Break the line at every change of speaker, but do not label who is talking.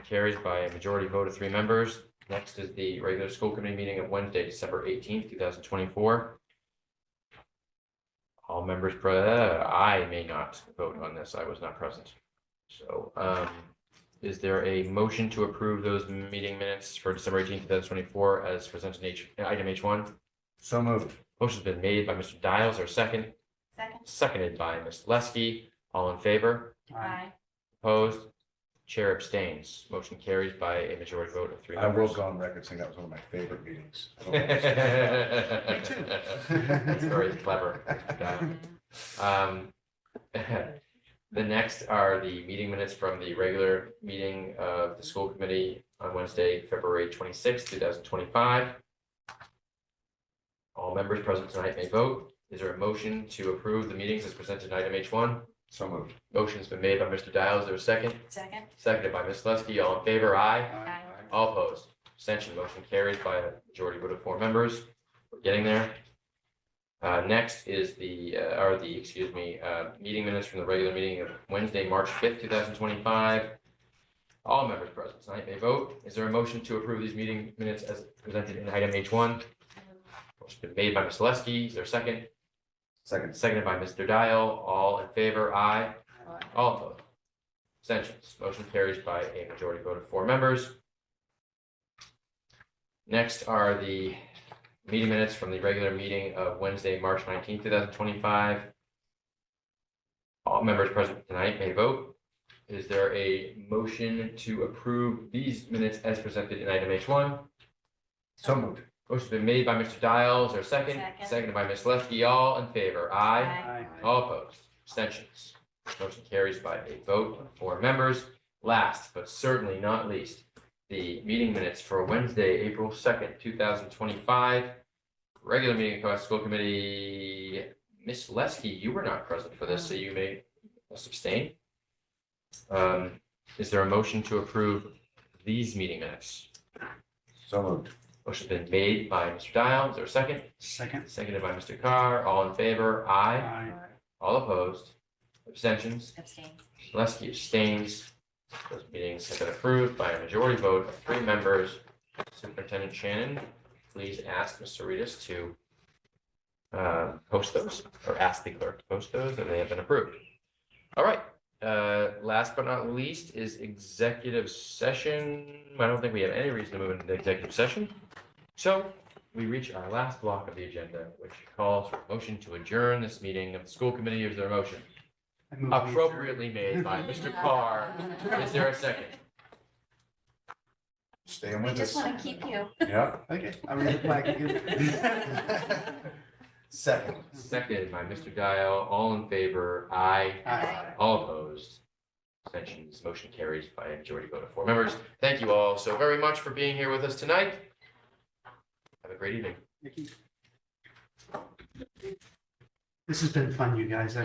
Carries by a majority vote of three members. Next is the regular school committee meeting of Wednesday, December eighteenth, two thousand twenty-four. All members, pre- uh, I may not vote on this. I was not present. So um, is there a motion to approve those meeting minutes for December eighteenth, two thousand twenty-four as presented in H, item H one?
So moved.
Motion's been made by Mr. Dials, our second,
Second.
seconded by Ms. Leskey. All in favor?
Aye.
Opposed? Chair abstains. Motion carries by a majority vote of three
I will
members.
go on record saying that was one of my favorite meetings.
That's Very clever. Mr. Dials. Um, The next are the meeting minutes from the regular meeting of the school committee on Wednesday, February twenty-sixth, two thousand twenty-five. All members present tonight may vote. Is there a motion to approve the meetings as presented in item H one?
So moved.
Motion's been made by Mr. Dials. Is there a second?
Second.
Seconded by Ms. Leskey. All in favor? Aye.
Aye.
All opposed? Abstention. Motion carries by a majority vote of four members. We're getting there. Uh, next is the, uh, or the, excuse me, uh, meeting minutes from the regular meeting of Wednesday, March fifth, two thousand twenty-five. All members present tonight may vote. Is there a motion to approve these meeting minutes as presented in item H one? Motion's been made by Ms. Leskey. Is there a second?
Second.
Seconded by Mr. Dial. All in favor? Aye. All opposed? Abstentions? Motion carries by a majority vote of four members. Next are the meeting minutes from the regular meeting of Wednesday, March nineteenth, two thousand twenty-five. All members present tonight may vote. Is there a motion to approve these minutes as presented in item H one?
So moved.
Motion's been made by Mr. Dials, or second,
Second.
seconded by Ms. Leskey. All in favor? Aye.
Aye.
All opposed, abstentions. Motion carries by a vote of four members. Last, but certainly not least, the meeting minutes for Wednesday, April second, two thousand twenty-five. Regular meeting of Cohasset School Committee, Ms. Leskey, you were not present for this, so you may abstain. Um, is there a motion to approve these meeting minutes?
So moved.
Motion's been made by Mr. Dial, is there a second?
Second.
Seconded by Mr. Carr, all in favor, aye.
Aye.
All opposed, abstentions.
Abstain.
Leskey abstains. Those meetings have been approved by a majority vote of three members. Superintendent Shannon, please ask Mr. Ritas to uh, post those, or ask the clerk to post those, and they have been approved. All right, uh, last but not least is executive session. I don't think we have any reason to move into the executive session. So we reach our last block of the agenda, which calls for a motion to adjourn this meeting of the school committee. Is there a motion?
I move we adjourn.
appropriately made by Mr. Carr. Is there a second?
Staying
We
with
just
us.
want to keep you.
Yeah.
Okay, I raise the flag again.
Second.
Seconded by Mr. Dial. All in favor? Aye.
Aye.
All opposed? Abstentions. Motion carries by a majority vote of four members. Thank you all so very much for being here with us tonight. Have a great evening.
Nikki? This has been fun, you guys.